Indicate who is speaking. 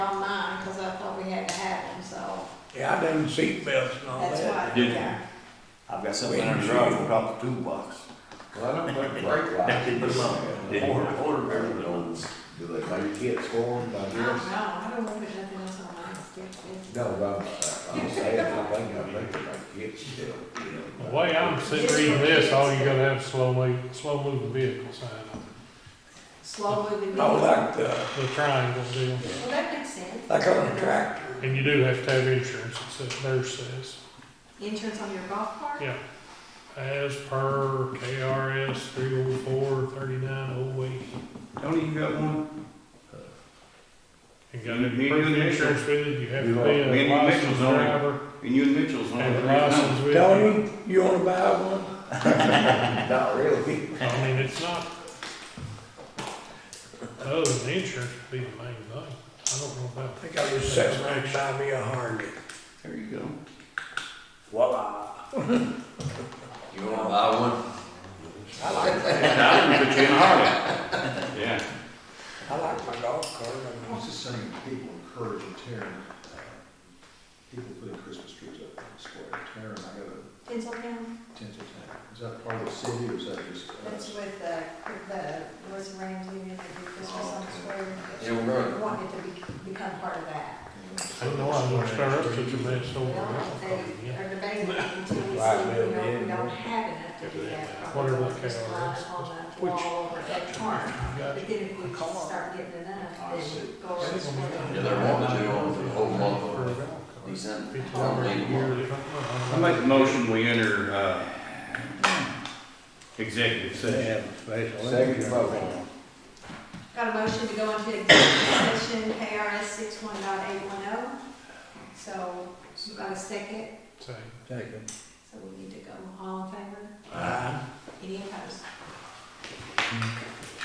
Speaker 1: had to have them, so
Speaker 2: Yeah, I done seat belts
Speaker 3: Oh,
Speaker 2: and all
Speaker 1: that's
Speaker 2: that.
Speaker 1: why,
Speaker 4: Did you?
Speaker 1: yeah.
Speaker 5: I've got something in the garage, put off the toolbox.
Speaker 6: Well, I don't think brake lights.
Speaker 5: Put them on,
Speaker 4: Did you?
Speaker 5: order, order, remember those.
Speaker 6: Do they make kids for them,
Speaker 1: I
Speaker 6: I
Speaker 1: don't know,
Speaker 6: guess?
Speaker 1: I don't remember nothing else on mine, it's, it's.
Speaker 6: No, but I'm, I'm saying, I think, I think they make kids still.
Speaker 3: The way I'm sitting reading this, all you gotta have is slowly, slow moving vehicle sign on
Speaker 1: Slow moving.
Speaker 2: Oh, like the,
Speaker 3: it, the triangle deal.
Speaker 1: Well, that makes sense.
Speaker 2: like on a tractor.
Speaker 3: And you do have to have insurance, it says, there says,
Speaker 1: Insurance on your golf cart?
Speaker 3: yeah. As per KRS three oh four thirty-nine oh eight.
Speaker 5: Tony, you got one?
Speaker 3: You gotta
Speaker 5: Me
Speaker 3: have
Speaker 5: and you
Speaker 3: proof of
Speaker 5: Mitchell.
Speaker 3: insurance with it, you have to
Speaker 6: Me
Speaker 3: be
Speaker 5: and
Speaker 3: a
Speaker 5: you
Speaker 3: licensed
Speaker 5: Mitchell's on it.
Speaker 3: driver,
Speaker 5: And you and Mitchell's one.
Speaker 3: have a license with you.
Speaker 2: Tony, you wanna buy one?
Speaker 6: Not really.
Speaker 3: I mean, it's not. Other than the insurance would be the main thing. I don't know about
Speaker 2: I think I was sitting right beside me a Harley.
Speaker 5: There you go.
Speaker 2: Voila.
Speaker 6: You wanna buy one?
Speaker 2: I like,
Speaker 5: I can put you in a Harley. Yeah.
Speaker 2: I like my golf cart. I mean,
Speaker 7: What's the saying, people encourage and tearing, uh, people putting Christmas trees up in the square, tearing, I got a
Speaker 1: Tinseltown,
Speaker 7: tinsel tank. Is that part of the city or is that just? us?
Speaker 1: that's with, uh, the, Royce Ramsey, and the Christmas on the square.
Speaker 6: Yeah, we're going.
Speaker 1: We Want it to be, become part of that.
Speaker 3: I don't know, I'm gonna start up such a mess over
Speaker 1: Well,
Speaker 3: there.
Speaker 1: they
Speaker 3: Oh, Yeah.
Speaker 1: are debating until we see, you
Speaker 2: Right,
Speaker 1: know,
Speaker 2: well,
Speaker 1: we
Speaker 2: yeah,
Speaker 1: don't
Speaker 2: yeah.
Speaker 1: have enough to do that.
Speaker 3: Whatever
Speaker 1: Probably
Speaker 3: the
Speaker 1: just
Speaker 3: KRS
Speaker 1: line
Speaker 3: is.
Speaker 1: On the
Speaker 3: Which-
Speaker 1: wall over that corner. But
Speaker 3: Gotcha.
Speaker 1: then if we start getting enough, then go over the square.
Speaker 6: Yeah, they're wanting to do on the whole month of
Speaker 3: For a golf cart.
Speaker 6: December.
Speaker 3: It's
Speaker 6: I don't
Speaker 3: already
Speaker 6: need one.
Speaker 3: yearly.
Speaker 5: I make the motion, we enter, uh, executive session.
Speaker 6: Second motion.
Speaker 1: Got a motion to go into executive session, KRS six one dot eight one oh. So, you got a second,
Speaker 3: Same.
Speaker 1: so we need to go all in favor,
Speaker 2: I-
Speaker 1: any opposed?